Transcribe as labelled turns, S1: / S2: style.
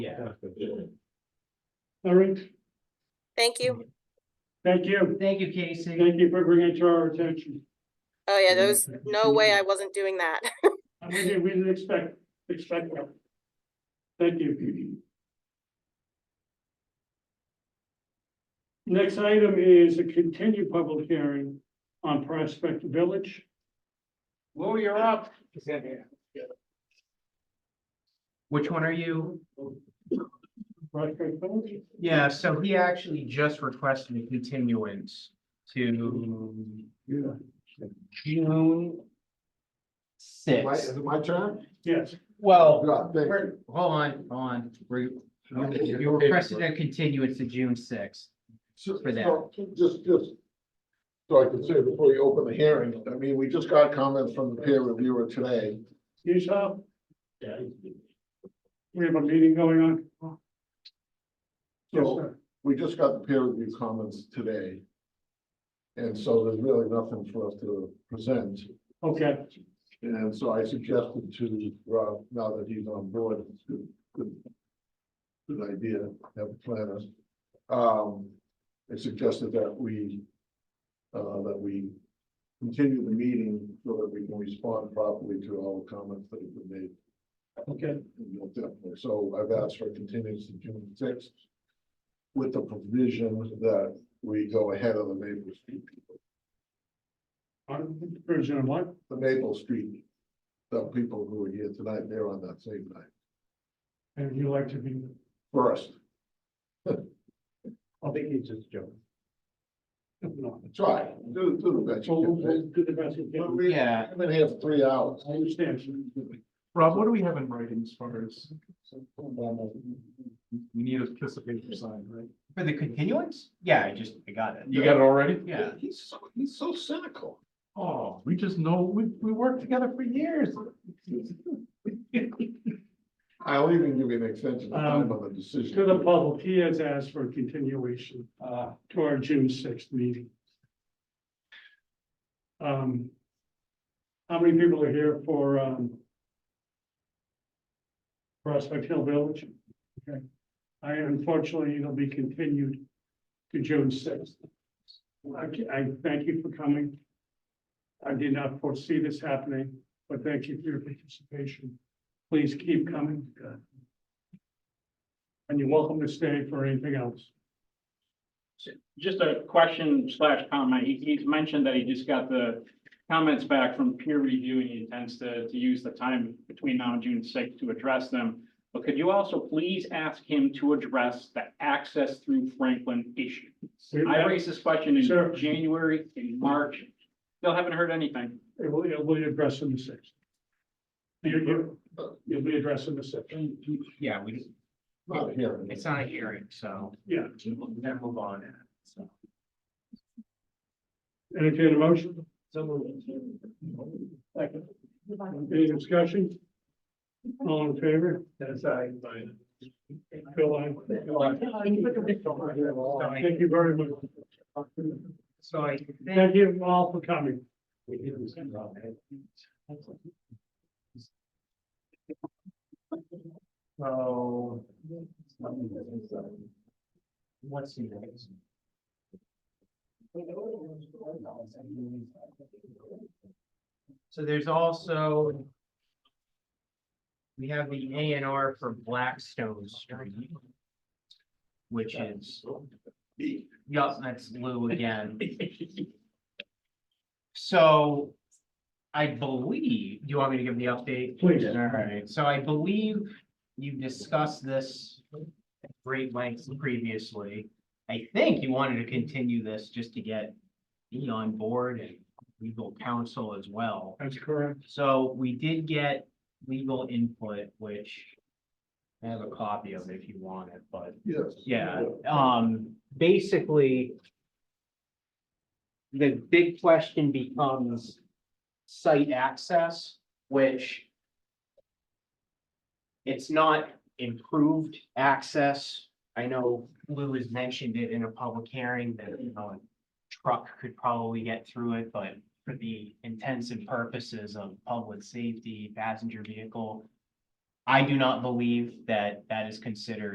S1: Yeah.
S2: All right,
S3: Thank you.
S2: thank you.
S4: Thank you, Casey.
S2: Thank you for bringing it to our attention.
S3: Oh, yeah, there was no way I wasn't doing that.
S2: We didn't, we didn't expect, expect that. Thank you. Next item is a continued public hearing on Prospect Village.
S1: Lou, you're up.
S4: Which one are you?
S2: Prospect Village,
S4: Yeah, so he actually just requested a continuance to June
S5: My, is
S4: sixth.
S5: it my turn?
S2: yes.
S4: Well,
S5: Yeah, thank you.
S4: we're- hold on, hold on. We're- You requested a continuance to June sixth.
S5: So-
S4: for that.
S5: so, Just, just. So I can say before you open the hearing, I mean, we just got comments from the peer reviewer today.
S2: You saw? Yeah. We have a meeting going on. Yes, sir.
S5: We just got the peer review comments today. And so there's really nothing for us to present.
S2: Okay,
S5: And so I suggested to Rob, now that he's on board, it's good, good. Good idea, have a planner. Um, I suggested that we. Uh, that we continue the meeting so that we can respond properly to all the comments that have been made.
S2: okay,
S5: And you'll definitely- So I've asked for a continuance to June sixth. With the provision that we go ahead of the Maple Street,
S2: on version of what?
S5: the Maple Street. The people who are here tonight, they're on that same night.
S2: And you like to be,
S5: first.
S1: I think he's just joking.
S2: no,
S5: Try, do, do the best
S2: so we'll-
S5: you
S2: we'll
S5: can.
S2: do the best we can.
S4: Yeah.
S5: I've been here for three hours.
S2: I understand.
S6: Rob, what do we have in writing as far as? We need a piece of paper signed, right?
S4: For the continuance? Yeah, I just, I got it.
S6: You got it already?
S4: Yeah.
S5: He's, so- he's so cynical.
S6: Oh, we just know, we, we worked together for years.
S5: I'll even give you an extension of time on the decision.
S2: To the public, he has asked for a continuation uh, to our June sixth meeting. Um, How many people are here for um, Prospect Hill Village? Okay, I unfortunately, it'll be continued to June sixth. I I thank you for coming. I did not foresee this happening, but thank you for your participation. Please keep coming. Uh, and you're welcome to stay for anything else.
S7: Just a question slash comment. He, he's mentioned that he just got the comments back from peer review and he intends to, to use the time between now and June sixth to address them. But could you also please ask him to address the access through Franklin issue? I raised this question
S2: Sure.
S7: in January, in March. Still haven't heard anything.
S2: It will, it will be addressed in the sixth. You, you, you'll be addressed in the sixth.
S4: Yeah, we,
S5: Not here.
S4: it's not a hearing, so
S2: Yeah,
S4: we'll then move on. So
S2: entertain a motion,
S1: Second.
S2: any discussion? All in favor?
S1: That's I.
S2: Bill, I. Thank you very much.
S4: so I think
S2: Thank you all for coming.
S4: So. What's the next? So there's also. We have the A and R for Blackstone Street. Which is. Yup, that's Lou again. So. I believe, do you want me to give the update?
S2: Please.
S4: All right, so I believe you discussed this at great lengths previously. I think you wanted to continue this just to get me on board and legal counsel as well.
S2: That's correct.
S4: So we did get legal input, which I have a copy of if you want it, but
S5: Yes.
S4: yeah, um, basically. The big question becomes site access, which. It's not improved access. I know Lou has mentioned it in a public hearing that, you know. a Truck could probably get through it, but for the intents and purposes of public safety, passenger vehicle. I do not believe that that is considered